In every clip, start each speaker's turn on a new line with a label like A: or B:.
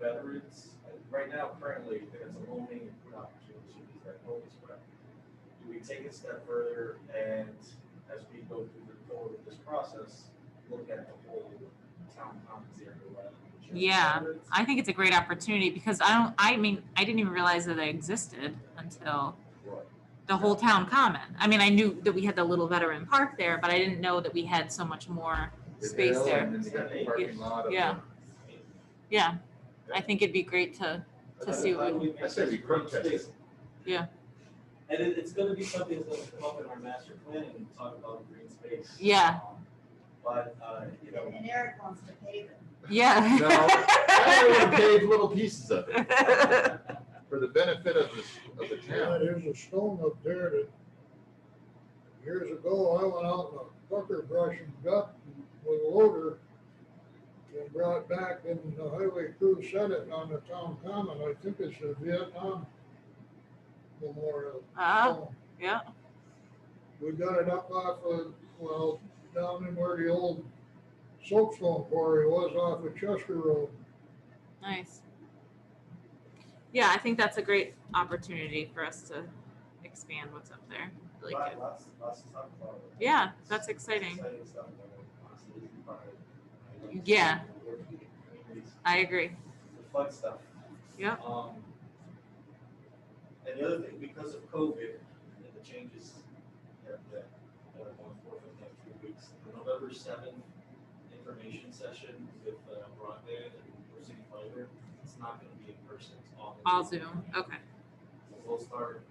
A: veterans, and right now currently, there's a loaning and put opportunities that always spread. Do we take it a step further and as we go through the forward of this process, look at the whole town commons area? rather than just
B: Yeah.
A: veterans?
B: I think it's a great opportunity because I don't, I mean, I didn't even realize that they existed until
A: Right.
B: the whole town common. I mean, I knew that we had the little veteran park there, but I didn't know that we had so much more space
C: hill
B: there.
C: And then you got the parking lot. of
B: Yeah.
C: the-
A: I mean,
B: Yeah, I think it'd be great to,
A: I-
B: to see
A: I-
B: what, we-
A: we-
C: I say we crowd test it.
B: Yeah.
A: And it, it's gonna be something that's gonna come up in our master plan and talk about green space.
B: Yeah.
A: Um, But, uh, you know,
D: And Eric wants to pave it.
C: No, I only
B: yeah.
C: paved little pieces of it for the benefit of the, of the
E: Yeah,
C: town.
E: there's a stone up there that years ago, I went out in a bucker brush and got with a loader and brought back and the highway crew set it on the town common. I think it's a Vietnam memorial.
B: Ah, yeah.
E: We got it up off of, well, down in where the old soapstone quarry was off of Chester Road.
B: Nice. Yeah, I think that's a great opportunity for us to expand what's up there. I Like,
A: lot-
B: it.
A: lots, lots to talk about.
B: yeah, that's exciting.
A: Exciting stuff that I honestly didn't find.
B: Yeah. I agree.
A: The fun stuff.
B: Yeah.
A: Um, and the other thing, because of COVID and the changes that, that, that are going forward in the next few weeks, the November seventh information session with uh, broadband and New City Fiber, it's not gonna be in person, it's all.
B: All Zoom. Okay.
A: We'll start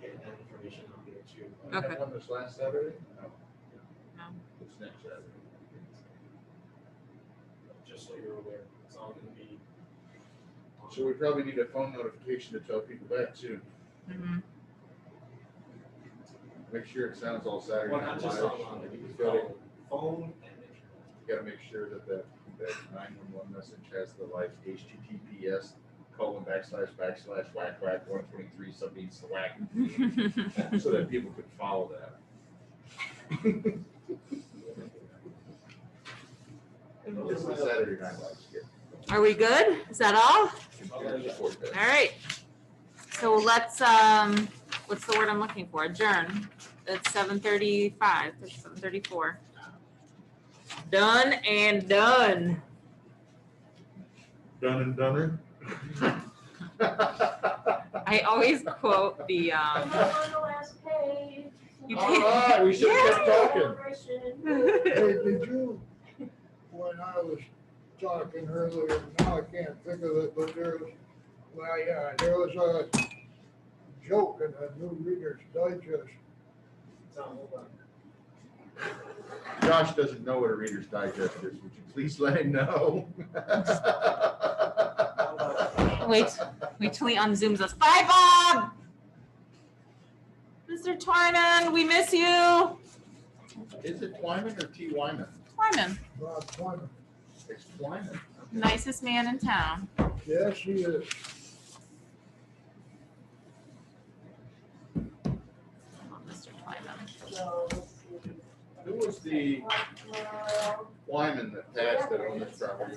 A: getting that information out there too.
C: I had
B: Okay.
C: one this last Saturday? No.
B: No.
C: It's next Saturday.
A: Just so you're aware, it's all gonna be. on-
C: So we probably need a phone notification to tell people that too.
B: Mhm.
C: Make sure it sounds all Saturday.
A: Well, not just
C: live.
A: online, but you
C: You
A: can
C: gotta-
A: call phone and internet.
C: You gotta make sure that that, that nine-one-one message has the like HTTPS colon backslash backslash whack whack one twenty-three sub needs to whack.
B: Mm-hmm.
C: So that people can follow that. This is Saturday Night Live skit.
B: Are we good? Is that all?
C: Yeah, just work that.
B: All right. So let's, um, what's the word I'm looking for? Adjourn. It's seven thirty-five, seven thirty-four. Done and done.
C: Done and Dunner.
B: I always quote the, um,
D: On the last page.
B: You
C: All right, we should have kept talking.
D: Celebration.
E: Hey, did you, when I was talking earlier, now I can't think of it, but there was, well, yeah, there was a joke in the New Reader's Digest.
A: Tom, hold on.
C: Josh doesn't know what a Reader's Digest is. Would you please let him know?
B: Wait, wait till he unzooms us. Bye, Bob! Mr. Twyman, we miss you.
C: Is it Twyman or T. Wyman?
B: Twyman,
E: Bob Twyman.
C: It's Twyman.
B: nicest man in town.
E: Yes, he is.
B: Oh, Mr. Twyman.
D: So, let's see.
C: Who was the
D: Tomorrow.
C: Wyman that passed that on this property?